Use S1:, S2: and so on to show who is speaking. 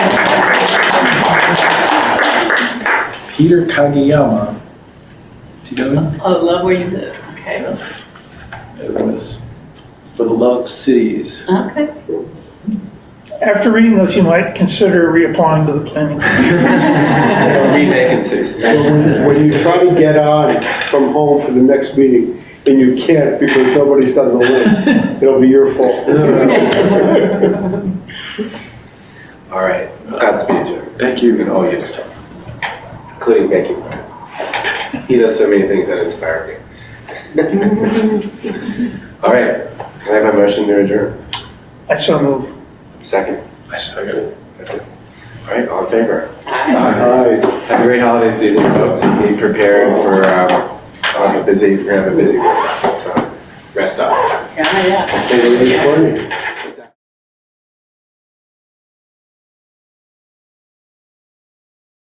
S1: Peter Kageyama. Do you know him?
S2: Oh, love where you live, okay,
S1: It was For the Love of Cities.
S2: okay.
S3: After reading this, you might consider reapplying to the planning.
S4: Three vacancies.
S5: When when you try to get on from home for the next meeting, and you can't because nobody's done the list, it'll be your fault.
S4: All right, Godspeed, Jerry,
S1: Thank you.
S4: and all your stuff, including Becky. He does so many things that inspire me. All right, can I have a motion to adjourn?
S3: I so move.
S4: Second?
S1: I second.
S4: Second. All right, all in favor?
S5: Aye.
S4: Have a great holiday season, folks. Be prepared for, um, I'll have a busy, we're gonna have a busy week, so rest up.
S2: Yeah, yeah.
S5: Hey, it's funny.